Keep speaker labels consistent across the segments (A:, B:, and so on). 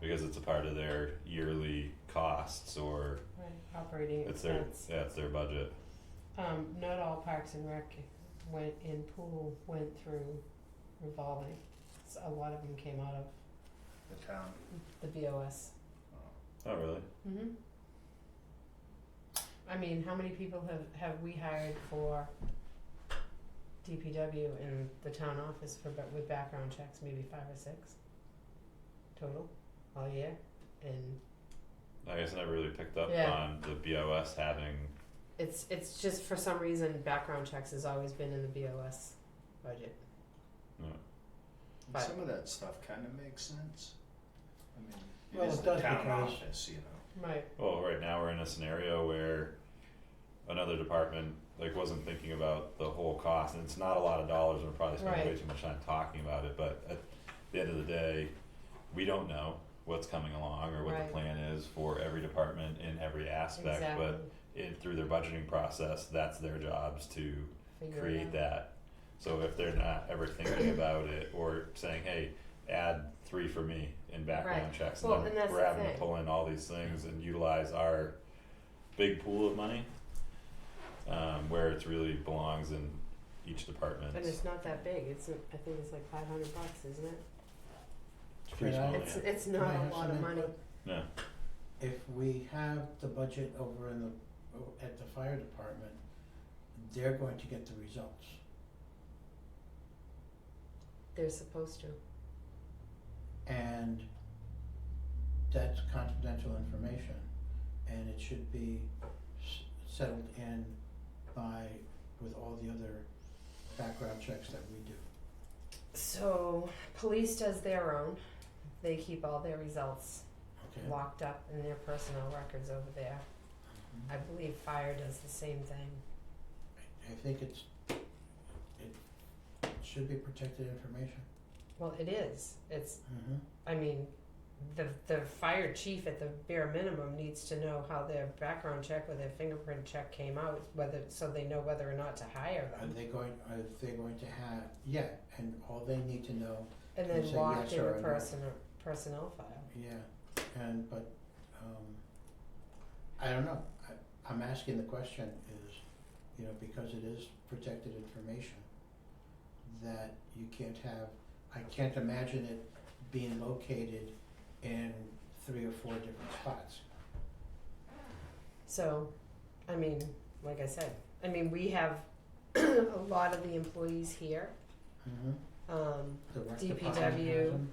A: because it's a part of their yearly costs or
B: Right, operating
A: it's their,
B: expense.
A: yeah, it's their budget.
B: Um, not all Parks and Rec went in pool, went through revolving. S a lot of them came out of
C: the town.
B: the BOS.
C: uh,
A: Not Oh, really.
B: Mm-hmm. I mean, how many people have, have we hired for DPW in the town office for, ba- with background checks, maybe five or six? Total, all year, and
A: I guess I never really picked up
B: Yeah.
A: on the BOS having,
B: it's, it's just for some reason, background checks has always been in the BOS budget.
C: and
B: But-
C: Some of that stuff kind of makes sense. I mean,
D: Well,
C: it is
D: it
C: the
D: does
C: town
D: because-
C: office, you know.
B: Right,
A: well, right now we're in a scenario where another department like wasn't thinking about the whole cost and it's not a lot of dollars and we're probably spending way
B: Right.
A: too much time talking about it, but at the end of the day, we don't know what's coming along or what
B: Right.
A: the plan is for every department in every aspect,
B: exactly.
A: but in through their budgeting process, that's their jobs to
B: Figure it out.
A: create that. So if they're not ever thinking about it or saying, hey, add three for me in background
B: Right.
A: checks,
B: Well,
A: and
B: and
A: then
B: that's
A: we're
B: the
A: having to
B: thing.
A: pull in all these things and utilize our big pool of money. Um, where it's really belongs in each department.
B: And it's not that big, it's, I think it's like five hundred bucks, isn't it?
A: It's pretty
D: Could
A: small,
D: I-
B: It's,
A: Oh, yeah.
B: it's not
D: Can I
B: a
D: have
B: lot
D: some
B: of money,
D: input?
A: Yeah.
D: If we have the budget over in the, o- at the fire department, they're going to get the results.
B: they're supposed to,
D: And that's confidential information, and it should be s- settled in by, with all the other background checks that we do.
B: so police does their own, they keep all their results
D: Okay.
B: locked up in their personnel records over there. I believe fire does the same thing,
D: I think it's, it should be protected information.
B: well, it is, it's,
D: Mm-hmm.
B: I mean, the, the fire chief at the bare minimum needs to know how their background check or their fingerprint check came out, whether, so they know whether or not to hire
D: Are
B: them.
D: they going, are they going to have, yeah, and all they need to know,
B: And
D: You
B: then
D: say
B: locked
D: yes
B: in the
D: or a no.
B: person, personnel file.
D: yeah, and, but, um, I don't know, I, I'm asking the question is, you know, because it is protected information, that you can't have, I can't imagine it being located in three or four different spots.
B: So, I mean, like I said, I mean, we have a lot of the employees here.
D: Mm-hmm.
B: Um,
D: The rec department has
B: DPW.
D: them.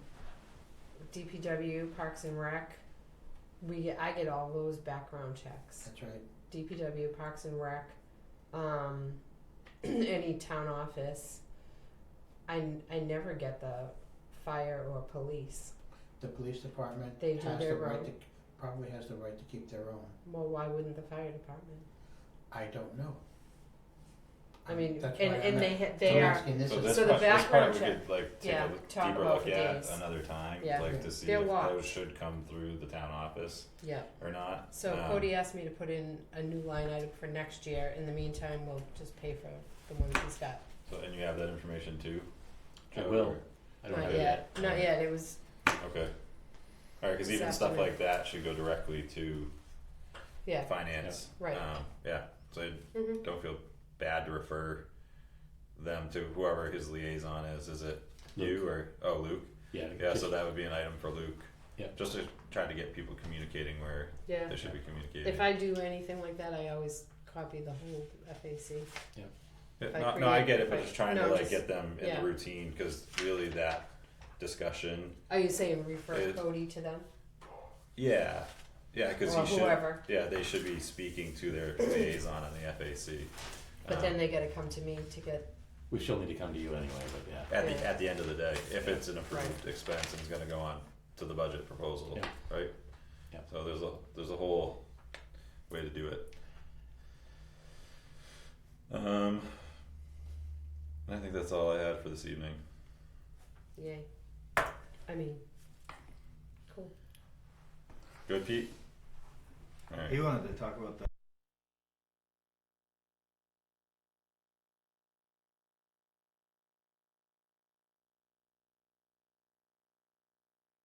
B: DPW, Parks and Rec. We get, I get all those background checks.
D: that's right,
B: DPW, Parks and Rec, um, any town office. I, n- I never get the fire or police.
D: the police department
B: They do
D: has the
B: their
D: right
B: own.
D: to, probably has the right to keep their own,
B: Well, why wouldn't the fire department?
D: I don't know.
B: I mean,
D: Um, That's
B: and,
D: why I'm
B: and
D: a-
B: they ha- they
D: I'm
B: are
D: asking this
A: So
D: is-
A: this
B: So the
A: part, this part
B: background
A: we
B: check-
A: could like take
B: yeah,
A: a look-
B: talk
A: deeper
B: about
A: look
B: the
A: at
B: days.
A: another time,
B: Yeah.
A: like
D: Yeah.
A: to see
B: They're
A: if
B: locked.
A: those should come through the town office
B: yeah.
A: or not.
B: So
A: Um,
B: Cody asked me to put in a new line item for next year. In the meantime, we'll just pay for the ones he's got.
A: So, and you have that information too?
E: I
A: Joe,
E: will.
A: or-
E: I don't
B: Not
E: have
A: it
B: yet.
A: yet.
B: Not yet. It was
A: Okay. Alright, cause
B: This
A: even stuff
B: afternoon.
A: like that should go directly to
B: yeah.
A: finance.
B: Right.
A: Um, yeah, so
B: Mm-hmm.
A: don't feel bad to refer them to whoever his liaison is, is it you or, oh, Luke?
E: Yeah.
A: Yeah,
E: just-
A: so that would be an item for Luke.
E: Yeah.
A: Just to try to get people communicating where
B: Yeah.
A: they should be communicating.
B: If I do anything like that, I always copy the whole FAC.
A: Yeah,
B: if I
A: no, no, I
B: create-
A: get it, but
B: if I-
A: just trying to
B: no,
A: like
B: just-
A: get them in
B: yeah.
A: the routine, cause really that discussion,
B: Are you saying refer
A: It-
B: Cody to them
A: yeah, yeah, cause
B: or
A: you should.
B: whoever?
A: Yeah, they should be speaking to their liaison in the FAC.
B: But
A: Um,
B: then they got to come to me to get
E: We still need to come to you anyway, but yeah.
A: at the
B: Yeah.
A: at the end of the day, if it's an approved expense and it's gonna go on to the budget proposal,
E: Yeah.
A: right?
E: Yeah.
A: So there's a there's a whole way to do it. Um, I think that's all I had for this evening.
B: yay. I mean, cool.
A: Good, Pete. All right.
C: He wanted to talk about the